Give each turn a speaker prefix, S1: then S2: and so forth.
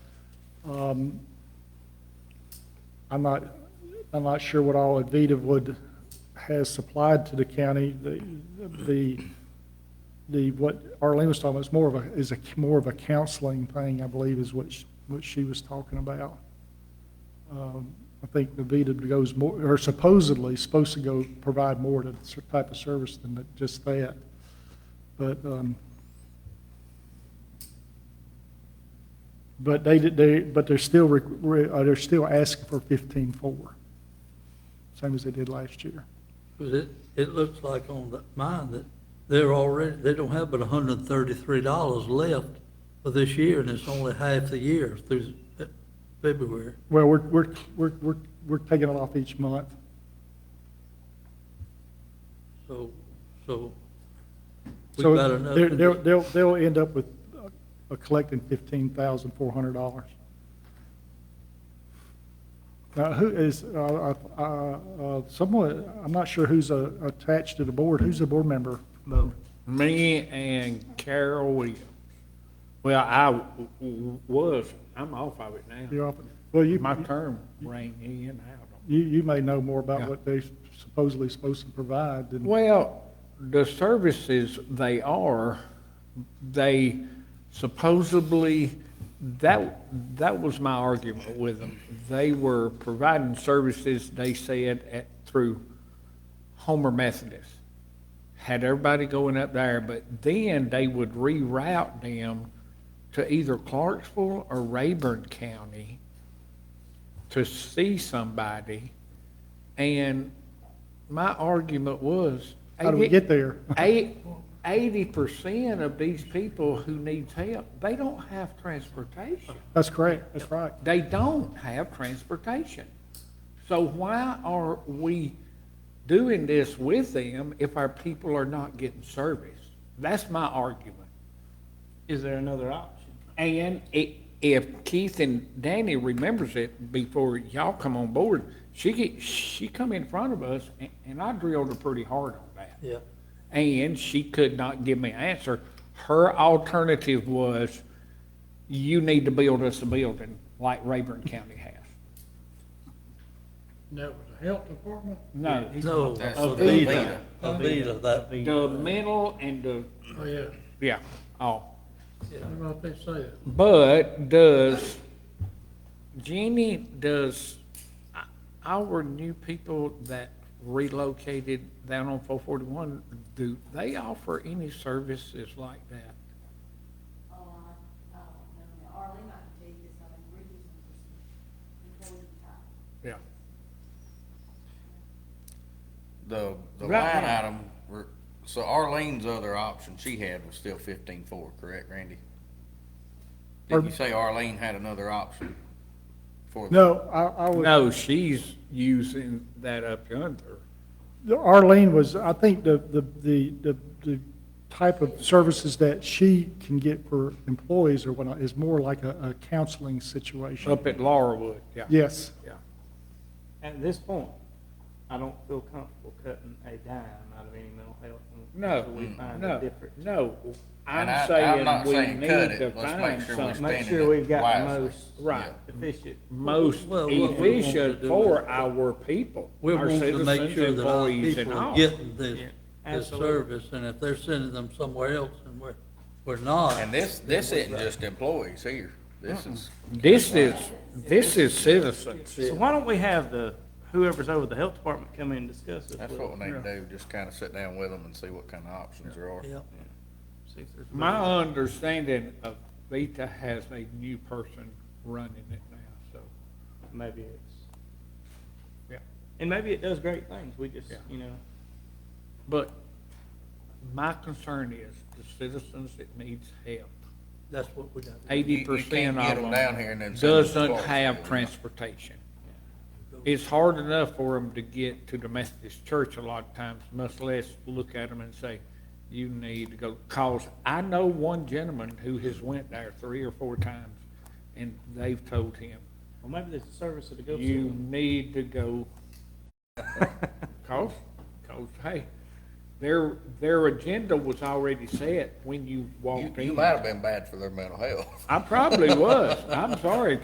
S1: Um, I'm not, I'm not sure what all Avita would, has supplied to the county. The, the, the, what Arlene was talking about is more of a, is a, more of a counseling thing, I believe, is what, sh- what she was talking about. Um, I think Avita goes more, or supposedly supposed to go provide more to the type of service than that- just that. But, um, But they, did- they, but they're still, re- re- uh, they're still asking for fifteen-four, same as they did last year.
S2: Because it, it looks like on that mine that they're already, they don't have but hundred and thirty-three dollars left for this year, and it's only half the year through Fe- February.
S1: Well, we're, we're, we're, we're, we're taking it off each month.
S2: So, so we've
S1: So
S2: got enough.
S1: they're-
S2: in
S1: they'll,
S2: this-
S1: they'll, they'll end up with, uh, uh, collecting fifteen thousand four hundred dollars. Now, who is, uh, uh, uh, someone, I'm not sure who's uh, attached to the board, who's the board member? Mo.
S3: Me and Carol Williams. Well, I w- w- was, I'm off of it now.
S1: You're up. Well, you,
S3: My term ran in out. on-
S1: you, you may know more about
S3: Yeah.
S1: what they supposedly supposed to provide than.
S3: Well, the services they are, they supposedly, that, that was my argument with them. They were providing services, they said, at, through Homer Methodist. Had everybody going up there, but then they would reroute them to either Clarksville or Rayburn County to see somebody. And my argument was.
S1: How do we get there?
S3: Eighty percent of these people who needs help, they don't have transportation.
S1: That's correct, that's right.
S3: They don't have transportation. So why are we doing this with them if our people are not getting service? That's my argument.
S4: Is there another option?
S3: And i- if Keith and Danny remembers it before y'all come on board, she get, she come in front of us and, and I drilled her pretty hard on that.
S2: Yeah,
S3: And she could not give me an answer. Her alternative was, you need to build us a building like Rayburn County has.
S4: That was the health department?
S3: No,
S2: no,
S5: That's
S2: Avita,
S5: Avita.
S2: Avita, that,
S3: the mental and the,
S4: Oh, yeah.
S3: yeah, all.
S2: yeah.
S4: How about they say that?
S3: But does, Jeannie, does our new people that relocated down on four forty-one, do they offer any services like that?
S6: Oh, I, I don't know, now Arlene, I can tell you this, I've been reading some of this before we talk.
S3: Yeah.
S5: The, the
S3: Right
S5: line
S3: now.
S5: item, were- so Arlene's other option she had was still fifteen four, correct, Randy? Did
S1: Pardon?
S5: you say Arlene had another option? for the-
S1: No, I, I was,
S3: No, she's using that up yonder.
S1: Arlene was, I think the, the, the, the, the type of services that she can get for employees or whatnot is more like a, a counseling situation.
S3: Up at Laurelwood, yeah.
S1: Yes,
S3: Yeah.
S4: At this point, I don't feel comfortable cutting a dime out of any mental health.
S3: No,
S4: until we find a
S3: no,
S4: different.
S3: no.
S5: And I-
S3: I'm
S5: I'm
S3: saying
S5: not
S3: we
S5: saying
S3: need
S5: cut it.
S3: to
S5: Let's make
S3: find
S5: sure we
S3: something
S4: Make
S5: Standing
S4: sure
S5: it
S4: we've got the
S5: wisely.
S4: most
S3: Right.
S4: efficient.
S3: most
S2: Well, what we want to
S3: efficient
S2: do
S3: for
S2: is-
S3: our people,
S2: We're
S3: our
S2: wanting to make
S3: citizens,
S2: sure that our
S3: employees and
S2: people
S3: all.
S2: are getting this,
S4: Yeah,
S2: this
S4: absolutely.
S2: service, and if they're sending them somewhere else and we're, we're not.
S5: And this, this isn't just employees here. This is,
S3: This is, this is citizens.
S4: So why don't we have the, whoever's over the health department come in and discuss this?
S5: that's
S4: with
S5: what we need to
S4: them?
S5: do, just kind of sit down with them and see what kind of options there are.
S2: Yeah,
S4: See if there's-
S3: My understanding of Vita has a new person running it now, so,
S4: Maybe it's,
S3: yeah.
S4: and maybe it does great things. We just,
S3: Yeah.
S4: you know,
S3: But my concern is the citizens that needs help,
S2: that's what we got.
S3: eighty percent
S5: You- you can't get
S3: of them
S5: 'em down here and then send 'em to
S3: doesn't
S5: Clarksville, you
S3: have
S5: know.
S3: transportation. It's hard enough for them to get to the Methodist church a lot of times, much less look at them and say, you need to go, cause I know one gentleman who has went there three or four times, and they've told him,
S4: well, maybe there's a service that'll go. to
S3: you
S4: them.
S3: need to go. Cause, cause, hey, their, their agenda was already set when you
S5: You,
S3: walked in.
S5: you might have been bad for their mental health.
S3: I probably was. I'm sorry,